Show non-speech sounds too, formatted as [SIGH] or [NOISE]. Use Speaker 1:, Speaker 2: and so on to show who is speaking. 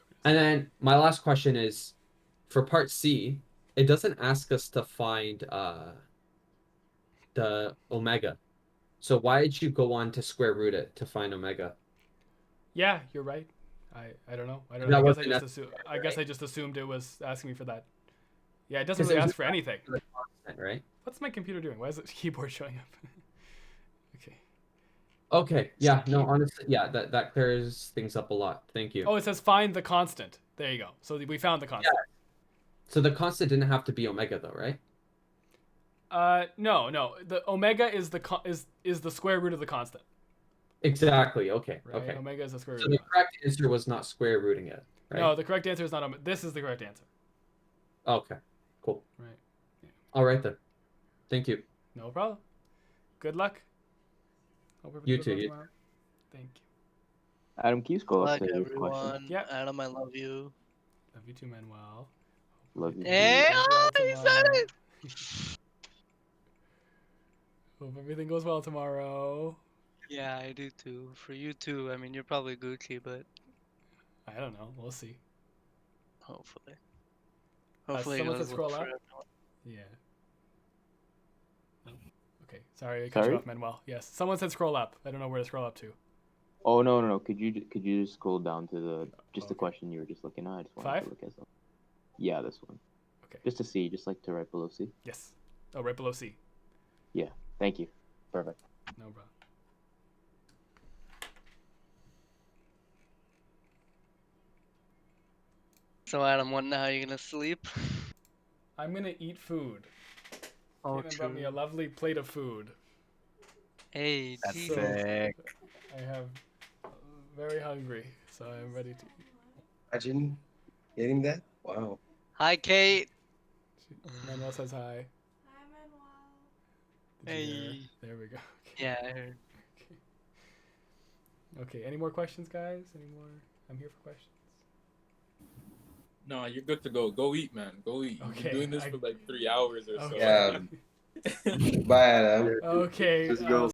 Speaker 1: And then my last question is for part C, it doesn't ask us to find uh the omega. So why did you go on to square root it to find omega?
Speaker 2: Yeah, you're right. I, I don't know. I don't
Speaker 1: That
Speaker 2: know. I guess I,
Speaker 1: wasn't
Speaker 2: just assu- I guess I just assumed it was asking me for that. Yeah, it doesn't really
Speaker 1: there's
Speaker 2: ask for anything.
Speaker 1: Right?
Speaker 2: What's my computer doing? Why is the [LAUGHS] keyboard showing up? [LAUGHS] okay.
Speaker 1: Okay. Yeah, no, honestly yeah, that, that clears things up a lot. Thank you.
Speaker 2: Oh, it says find the constant. There you go. So we found the constant.
Speaker 1: So the constant didn't have to be omega though, right?
Speaker 2: Uh, no, no. The omega is the con- is is the square root of the constant.
Speaker 1: Exactly. Okay.
Speaker 2: Right?
Speaker 1: Okay.
Speaker 2: Omega is the square root.
Speaker 1: So
Speaker 2: Of
Speaker 1: the
Speaker 2: the
Speaker 1: correct answer was not square rooting it, right?
Speaker 2: No, the correct answer is not. Omega. This is the correct answer.
Speaker 1: Okay. Cool.
Speaker 2: Right. Yeah.
Speaker 1: All right then. Thank you.
Speaker 2: No problem. Good luck. Hope everything
Speaker 1: You
Speaker 2: goes
Speaker 1: too,
Speaker 2: well
Speaker 1: you-
Speaker 2: tomorrow. Thank you.
Speaker 3: Adam, can you scroll up
Speaker 4: Like
Speaker 3: to your question?
Speaker 4: everyone.
Speaker 2: Yeah.
Speaker 4: Adam, I love you.
Speaker 2: Love you too, Manuel.
Speaker 3: Love you.
Speaker 4: Eh?
Speaker 2: Everything goes well
Speaker 4: he said
Speaker 2: tomorrow.
Speaker 4: it!
Speaker 2: Hope everything goes well tomorrow.
Speaker 4: Yeah, I do too. For you too. I mean, you're probably Gucci, but
Speaker 2: I don't know. We'll see.
Speaker 4: hopefully.
Speaker 2: Uh,
Speaker 4: Hopefully,
Speaker 2: someone
Speaker 4: it'll
Speaker 2: said scroll
Speaker 4: work for
Speaker 2: up.
Speaker 4: everyone.
Speaker 2: Yeah. Okay. Sorry, I cut
Speaker 3: Sorry?
Speaker 2: you off, Manuel. Yes. Someone said scroll up. I don't know where to scroll up to.
Speaker 3: Oh no, no, no. Could you could you just scroll down to the just the
Speaker 2: Okay.
Speaker 3: question you were just looking at? I just wanted
Speaker 2: Five?
Speaker 3: to look at something. Yeah, this one.
Speaker 2: Okay.
Speaker 3: Just to see, just like to right below C.
Speaker 2: Yes. Oh, right below C.
Speaker 3: Thank you. Perfect.
Speaker 2: No problem.
Speaker 4: So, Adam, wondering how you're gonna sleep?
Speaker 2: I'm gonna eat food.
Speaker 4: Oh,
Speaker 2: Caitlin brought me
Speaker 4: true.
Speaker 2: a lovely plate of food.
Speaker 4: Hey,
Speaker 5: That's
Speaker 4: Jesus.
Speaker 5: sick.
Speaker 2: I have uh, very hungry, so I'm ready to eat.
Speaker 5: Imagine getting that. Wow.
Speaker 4: Hi, Kate.
Speaker 2: She- Manuel says hi.
Speaker 6: Hi, Manuel.
Speaker 2: Did you hear her?
Speaker 4: Hey.
Speaker 2: There we go. [LAUGHS]
Speaker 4: Yeah, I heard.
Speaker 2: Okay. [LAUGHS] Okay, any more questions, guys? Any more? I'm here for questions.
Speaker 7: No, you're good to go. Go eat, man. Go eat. You've
Speaker 2: Okay,
Speaker 7: been doing this
Speaker 2: I-
Speaker 7: for like three hours or so.
Speaker 2: Okay.
Speaker 5: Yeah. Bye, Adam.
Speaker 2: [LAUGHS] Okay.
Speaker 5: Let's
Speaker 2: uh,
Speaker 5: go.